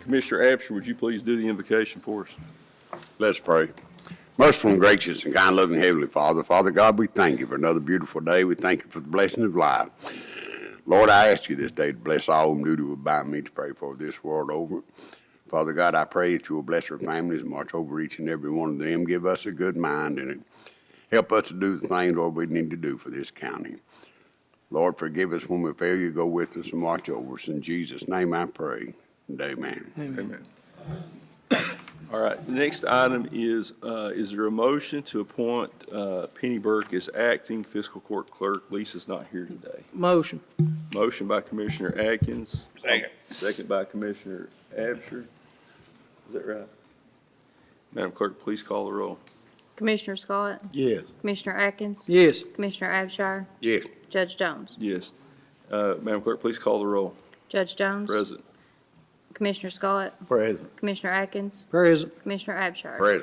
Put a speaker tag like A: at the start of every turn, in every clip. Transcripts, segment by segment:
A: Commissioner Absher, would you please do the invocation for us?
B: Let's pray. Merciful and gracious and kind loving Heavenly Father, Father God, we thank you for another beautiful day. We thank you for the blessing of life. Lord, I ask you this day to bless all whom duty will bind me to pray for this world over. Father God, I pray that you will bless our families and watch over each and every one of them. Give us a good mind and help us to do the things, Lord, we need to do for this county. Lord, forgive us when we fail you. Go with us and watch over us. In Jesus' name I pray. And amen.
A: Amen. All right, the next item is, uh, is there a motion to appoint uh, Penny Burke as acting fiscal court clerk? Lisa's not here today.
C: Motion.
A: Motion by Commissioner Atkins. Second. Second by Commissioner Absher. Is that right? Madam Clerk, please call the roll.
D: Commissioner Scott?
B: Yes.
D: Commissioner Atkins?
C: Yes.
D: Commissioner Abshire?
B: Yes.
D: Judge Jones?
A: Yes. Uh, Madam Clerk, please call the roll.
D: Judge Jones?
A: Present.
D: Commissioner Scott?
C: Present.
D: Commissioner Atkins?
C: Present.
D: Commissioner Abshire?
B: Praise.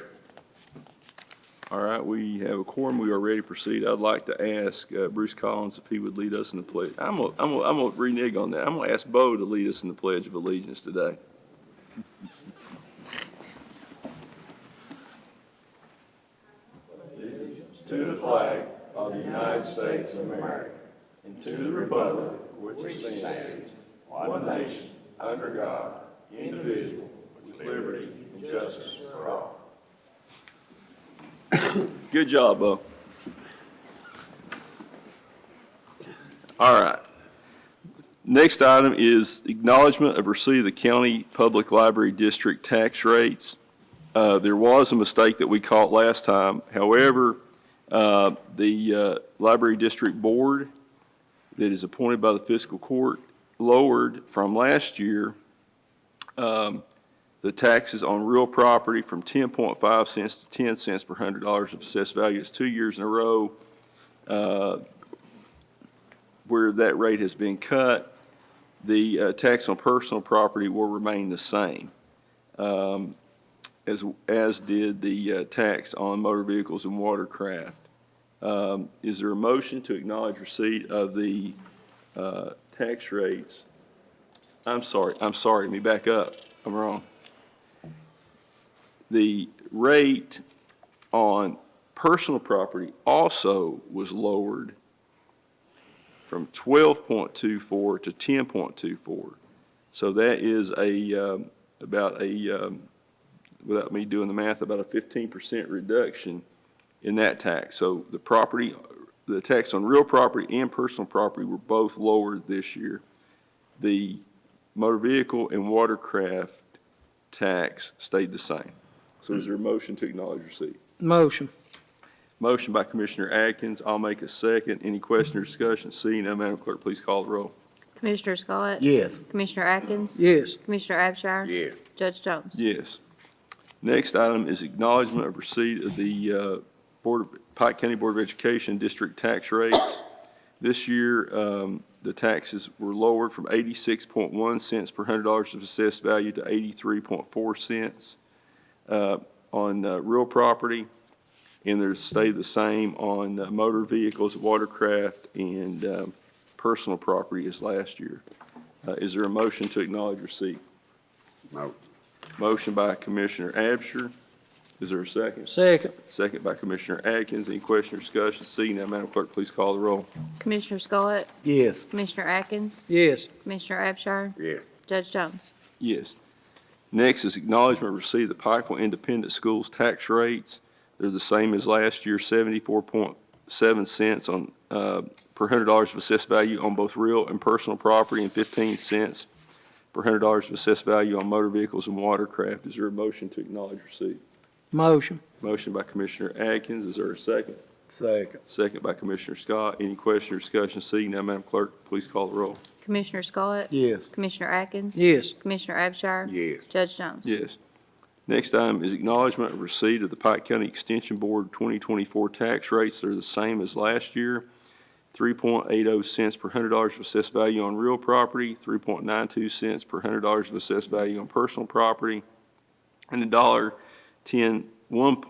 A: All right, we have a quorum. We are ready to proceed. I'd like to ask uh, Bruce Collins if he would lead us in the pledge. I'm gonna, I'm gonna, I'm gonna renege on that. I'm gonna ask Bo to lead us in the Pledge of Allegiance today. Good job, Bo. All right. Next item is acknowledgement of receipt of the county public library district tax rates. Uh, There was a mistake that we caught last time. However, uh, the uh, library district board that is appointed by the fiscal court lowered from last year um, the taxes on real property from 10.5 cents to 10 cents per hundred dollars of assessed value. It's two years in a row uh, where that rate has been cut. The uh, tax on personal property will remain the same, um, as, as did the uh, tax on motor vehicles and watercraft. Um, Is there a motion to acknowledge receipt of the uh, tax rates? I'm sorry, I'm sorry, let me back up, I'm wrong. The rate on personal property also was lowered from 12.24 to 10.24. So that is a, um, about a, um, without me doing the math, about a 15% reduction in that tax. So the property, the tax on real property and personal property were both lowered this year. The motor vehicle and watercraft tax stayed the same. So is there a motion to acknowledge receipt?
C: Motion.
A: Motion by Commissioner Atkins, I'll make a second. Any question or discussion? Seeing none, Madam Clerk, please call the roll.
D: Commissioner Scott?
C: Yes.
D: Commissioner Atkins?
C: Yes.
D: Commissioner Abshire?
B: Yes.
D: Judge Jones?
A: Yes. Next item is acknowledgement of receipt of the uh, Board of, Pike County Board of Education district tax rates. This year, um, the taxes were lowered from 86.1 cents per hundred dollars of assessed value to 83.4 cents uh, on uh, real property, and they're stayed the same on uh, motor vehicles, watercraft, and um, personal property as last year. Uh, Is there a motion to acknowledge receipt?
B: No.
A: Motion by Commissioner Absher. Is there a second?
C: Second.
A: Second by Commissioner Atkins. Any question or discussion? Seeing none, Madam Clerk, please call the roll.
D: Commissioner Scott?
C: Yes.
D: Commissioner Atkins?
C: Yes.
D: Commissioner Abshire?
B: Yes.
D: Judge Jones?
A: Yes. Next is acknowledgment received the Pikeville Independent Schools tax rates. They're the same as last year, seventy-four point seven cents on, uh, per hundred dollars of assessed value on both real and personal property and fifteen cents per hundred dollars of assessed value on motor vehicles and watercraft. Is there a motion to acknowledge receipt?
C: Motion.
A: Motion by Commissioner Atkins. Is there a second?
C: Second.
A: Second by Commissioner Scott. Any question or discussion? Seeing none, Madam Clerk, please call the roll.
D: Commissioner Scott?
C: Yes.
D: Commissioner Atkins?
C: Yes.
D: Commissioner Abshire?
B: Yes.
D: Judge Jones?
A: Yes. Next item is acknowledgment of receipt of the Pike County Extension Board 2024 tax rates. They're the same as last year. 3.80 cents per hundred dollars of assessed value on real property, 3.92 cents per hundred dollars of assessed value on personal property, and a dollar 10, 1.